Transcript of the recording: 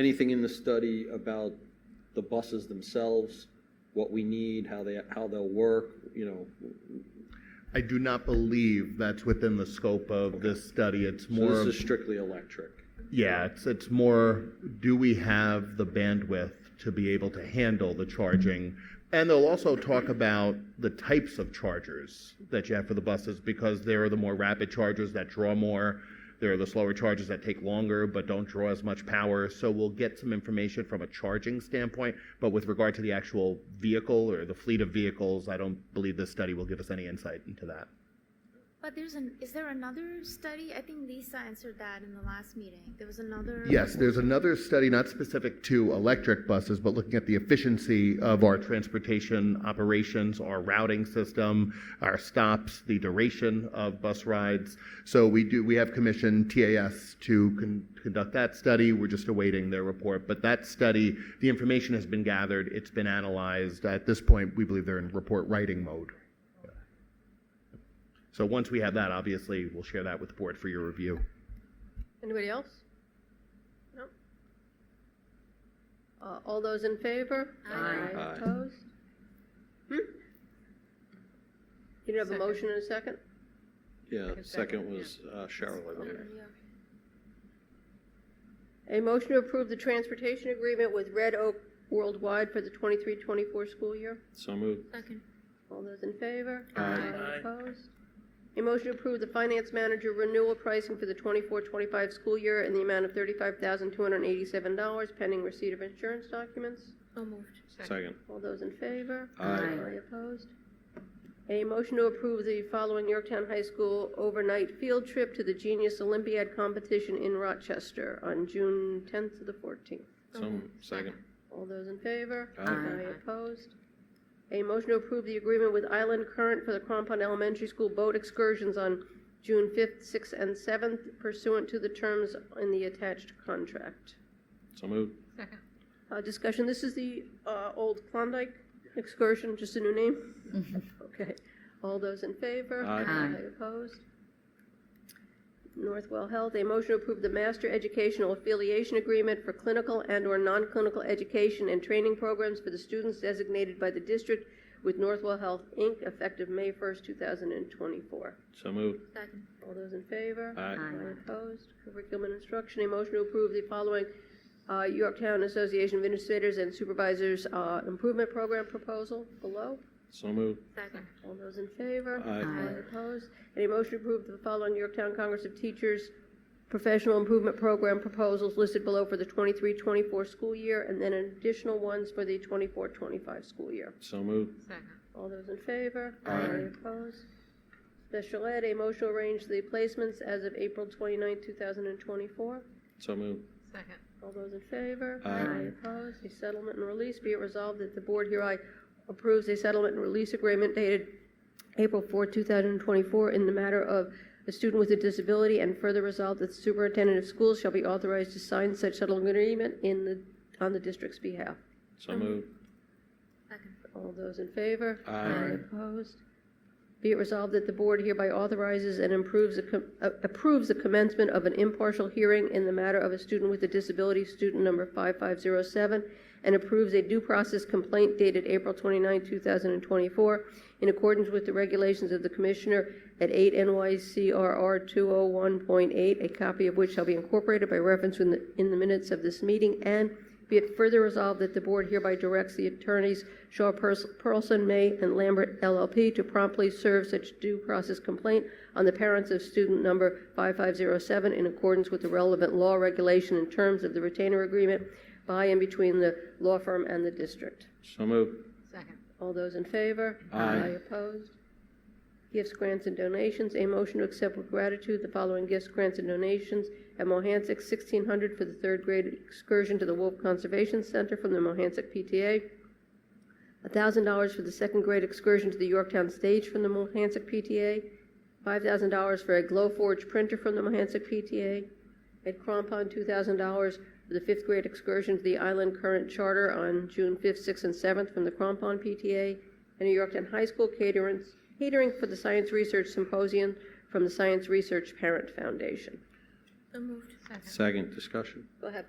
anything in the study about the buses themselves, what we need, how they, how they'll work, you know? I do not believe that's within the scope of this study. It's So more, this of- is strictly electric. yeah, it's, it's more, do we have the bandwidth to be able to handle the charging? And they'll also talk about the types of chargers that you have for the buses because there are the more rapid chargers that draw more. There are the slower chargers that take longer but don't draw as much power. So we'll get some information from a charging standpoint. But with regard to the actual vehicle or the fleet of vehicles, I don't believe this study will give us any insight into that. But there's an, is there another study? I think Lisa answered that in the last meeting. There was another. Yes, there's another study not specific to electric buses, but looking at the efficiency of our transportation operations, our routing system, our stops, the duration of bus rides. So we do we have commissioned TAS to con- conduct that study. We're just awaiting their report. But that study, the information has been gathered, it's been analyzed. At this point, we believe they're in report writing mode. So once we have that, obviously, we'll share that with the board for your review. Anybody else? No? Uh, All those in favor? Aye. Aye. Opposed? Hmm? You don't have a motion and a second? Yeah, second was uh, Cheryl, I believe. Yeah. A motion to approve the transportation agreement with Red Oak Worldwide for the 23-24 school year? So moved. Second. All those in favor? Aye. Opposed? A motion to approve the finance manager renewal pricing for the 24-25 school year in the amount of thirty-five thousand, two hundred and eighty-seven dollars pending receipt of insurance documents. So moved. Second. All those in favor? Aye. Any opposed? A motion to approve the following Yorktown High School overnight field trip to the Genius Olympiad competition in Rochester on June tenth to the fourteenth. So moved. Second. All those in favor? Aye. Any opposed? A motion to approve the agreement with Island Current for the Crampon Elementary School boat excursions on June fifth, sixth, and seventh pursuant to the terms in the attached contract. So moved. Uh, discussion, this is the, uh, old Klondike excursion, just a new name? Okay, all those in favor? Aye. Aye. Opposed? Northwell Health, a motion to approve the master educational affiliation agreement for clinical and/or non-clinical education and training programs for the students designated by the district with Northwell Health, Inc., effective May first, two thousand and twenty-four. So moved. Second. All those in favor? Aye. Aye opposed? Curriculum and instruction, a motion to approve the following uh, Yorktown Association of Administrators and Supervisors uh, Improvement Program proposal below. So moved. Second. All those in favor? Aye. Aye opposed? And a motion to approve the following Yorktown Congress of Teachers Professional Improvement Program proposals listed below for the 23-24 school year, and then additional ones for the 24-25 school year. So moved. All those in favor? Aye. Opposed? Special ed, a motion to arrange the placements as of April 29, thousand and twenty-four. So moved. All those in favor? Aye. Opposed? A settlement and release, be it resolved that the board hereby approves a settlement and release agreement dated April 4, thousand and twenty-four in the matter of a student with a disability, and further resolved that the superintendent of schools shall be authorized to sign such settlement agreement in the, on the district's behalf. So moved. Second. All those in favor? Aye. Opposed? Be it resolved that the board hereby authorizes and improves, the com- uh, approves the commencement of an impartial hearing in the matter of a student with a disability, student number 5507, and approves a due process complaint dated April 29, 2024, in accordance with the regulations of the Commissioner at 8 NYCRR 201.8, a copy of which shall be incorporated by reference in the, in the minutes of this meeting, and be it further resolved that the board hereby directs the attorneys Shaw Pers- Perlson, May, and Lambert LLP to promptly serve such due process complaint on the parents of student number 5507 in accordance with the relevant law regulation and terms of the retainer agreement by and between the law firm and the district. So moved. All those in favor? Aye. opposed? Gifts, grants, and donations. A motion to accept with gratitude the following gifts, grants, and donations. At Mohansick, 1600 for the third grade excursion to the Wolf Conservation Center from the Mohansick PTA. $1,000 for the second grade excursion to the Yorktown Stage from the Mohansick PTA. $5,000 for a Glowforge printer from the Mohansick PTA. Ed Crompon, $2,000 for the fifth grade excursion to the Island Current Charter on June 5th, 6th, and 7th from the Crompon PTA, and New Yorktown High School catering, catering for the Science Research Symposium from the Science Research Parent Foundation. So moved. Second. Second discussion. Go ahead.